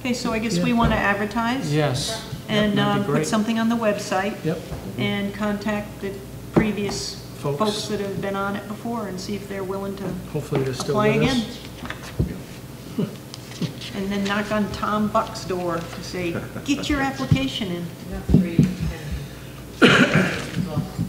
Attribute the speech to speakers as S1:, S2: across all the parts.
S1: Okay, so I guess we want to advertise?
S2: Yes. Yep,
S1: And
S2: that'd be
S1: um, put
S2: great.
S1: something on the website?
S2: Yep,
S1: And contact the previous
S2: Folks.
S1: folks that have been on it before and see if they're willing to
S2: hopefully they're still
S1: apply
S2: with
S1: again.
S2: us.
S1: And then knock on Tom Buck's door to say, get your application in
S3: We have three pending.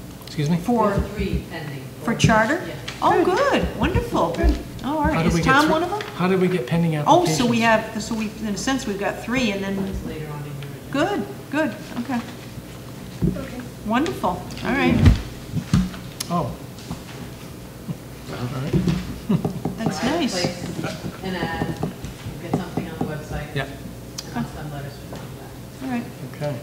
S2: Excuse me?
S3: We
S1: for,
S3: have three pending.
S1: for charter?
S3: Yeah.
S1: Oh, good, wonderful. Oh, all
S2: How
S1: right,
S2: did we
S1: is
S2: get
S1: Tom
S2: three-
S1: one of them?
S2: How did we get pending
S1: Oh,
S2: applications?
S1: so we have, so we, in a sense, we've got three and then,
S3: It's later on in your agenda.
S1: good, good, okay. Wonderful, all right.
S2: Oh. All right,
S1: That's
S3: Find a
S1: nice.
S3: place, An ad, get something on the website.
S2: yeah,
S3: And I'll send letters to them back.
S1: All right.
S2: okay.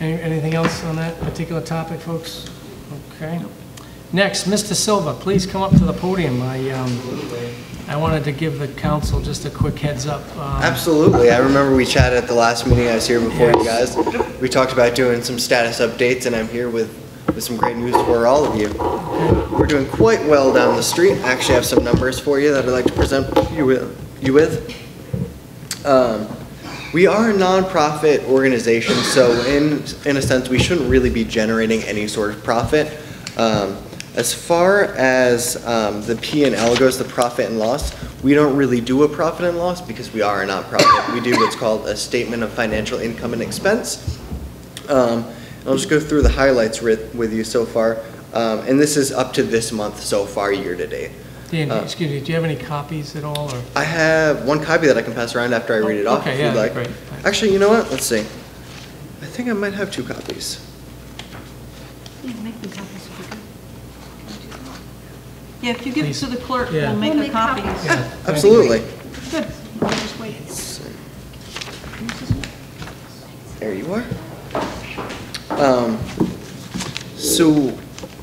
S2: Any- Anything else on that particular topic, folks? Okay. Next, Mr. Silva, please come up to the podium. I, um, I wanted to give the council just a quick heads up. um,
S4: Absolutely. I remember we chatted at the last meeting I was here before you guys. We talked about doing some status updates, and I'm here with, with some great news for all of you. We're doing quite well down the street. I actually have some numbers for you that I'd like to present you with. You with. Um, we are a nonprofit organization, so in, in a sense, we shouldn't really be generating any sort of profit. Um, As far as um, the P and L goes, the profit and loss, we don't really do a profit and loss because we are a nonprofit. We do what's called a statement of financial income and expense. Um, I'll just go through the highlights with, with you so far. Um, And this is up to this month so far, year-to-date.
S2: Dan,
S4: uh,
S2: excuse me, do you have any copies at all, or?
S4: I have one copy that I can pass around after I read it off
S2: Oh, Okay,
S4: if
S2: yeah,
S4: you'd like.
S2: great.
S4: Actually, you know what? Let's see. I think I might have two copies.
S1: Yeah, make them copies if you could. Yeah, if you give it to the clerk,
S2: Yeah.
S1: we'll make
S5: We'll
S1: a
S5: make
S1: copy.
S5: copies.
S2: Yeah, thank you.
S4: Absolutely.
S1: Good, I'll just wait.
S4: There you are. Um, So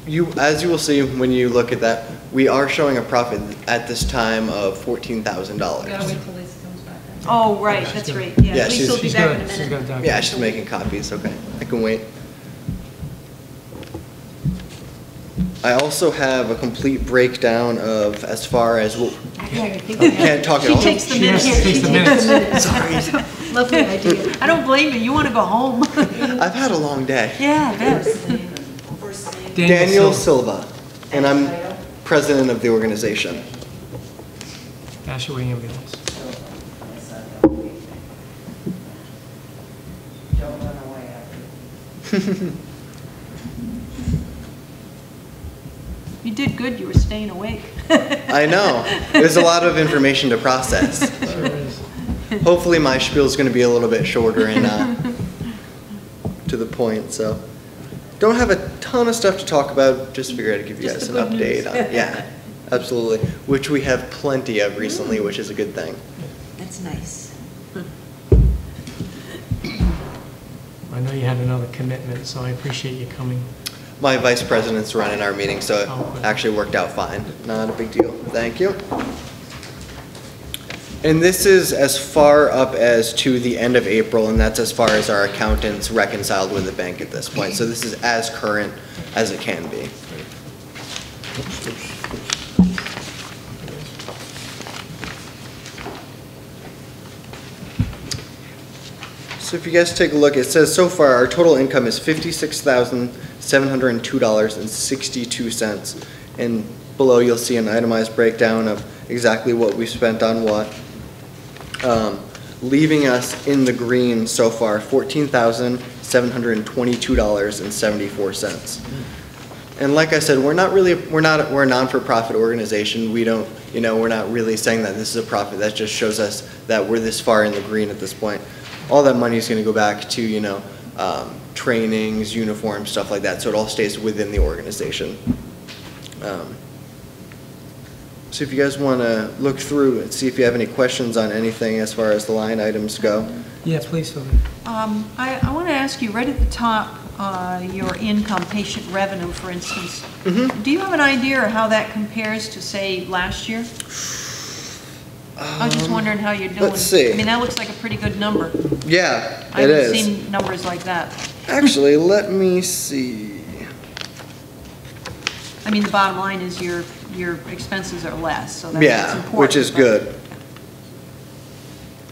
S4: you, as you will see when you look at that, we are showing a profit at this time of fourteen thousand
S3: We
S4: dollars.
S3: gotta wait till Lisa comes back. right?
S1: Oh, right,
S2: She's
S1: that's
S2: gonna-
S1: right, yeah.
S4: Yeah,
S1: Lisa
S4: she's-
S1: will be
S2: She's
S1: back
S2: got it,
S1: in a
S2: she's got it
S1: minute.
S2: down.
S4: Yeah, she's making copies, okay. I can wait. I also have a complete breakdown of as far as, what-
S5: Actually,
S4: can't talk at
S1: She
S4: all.
S1: takes the
S2: She
S1: minutes.
S2: has to take the minutes.
S5: Lovely idea.
S1: I don't blame you, you want to go home.
S4: I've had a long day.
S1: Yeah, yes.
S3: First name,
S4: Daniel
S2: Silva.
S4: Silva, and I'm president of the organization.
S2: Nashua Ambulance.
S6: Don't run away after.
S1: You did good, you were staying awake.
S4: I know, there's a lot of information to process.
S2: Sure is.
S4: Hopefully, my spiel's going to be a little bit shorter and uh, to the point, so. Don't have a ton of stuff to talk about, just figured I'd give you
S1: Just
S4: guys an
S1: the good news.
S4: update. on Yeah, absolutely, which we have plenty of
S1: Mm.
S4: recently, which is a good thing.
S5: That's nice.
S2: I know you had another commitment, so I appreciate you coming.
S4: My vice president's running our meeting, so
S2: Oh,
S4: it
S2: good.
S4: actually worked out fine. Not a big deal. Thank you. And this is as far up as to the end of April, and that's as far as our accountants reconciled with the bank at this point. So this is as current as it can be. So if you guys take a look, it says so far our total income is fifty-six thousand, seven hundred and two dollars and sixty-two cents. And below you'll see an itemized breakdown of exactly what we spent on what. Um, leaving us in the green so far, fourteen thousand, seven hundred and twenty-two dollars and seventy-four cents. And like I said, we're not really, we're not, we're a non-for-profit organization. We don't, you know, we're not really saying that this is a profit. That just shows us that we're this far in the green at this point. All that money is going to go back to, you know, um, trainings, uniforms, stuff like that. So it all stays within the organization. Um, So if you guys want to look through and see if you have any questions on anything as far as the line items go.
S2: Yeah, please, Sylvia.
S1: Um, I, I want to ask you, right at the top, uh, your income, patient revenue, for instance.
S4: Mm-hmm.
S1: Do you have an idea of how that compares to, say, last year? I was just
S4: Um,
S1: wondering how you're doing.
S4: let's see.
S1: I mean, that looks like a pretty good number.
S4: Yeah,
S1: I
S4: it is.
S1: haven't seen numbers like that.
S4: Actually, let me see.
S1: I mean, the bottom line is your, your expenses are less, so that's
S4: Yeah,
S1: important.
S4: which is
S1: but-
S4: good.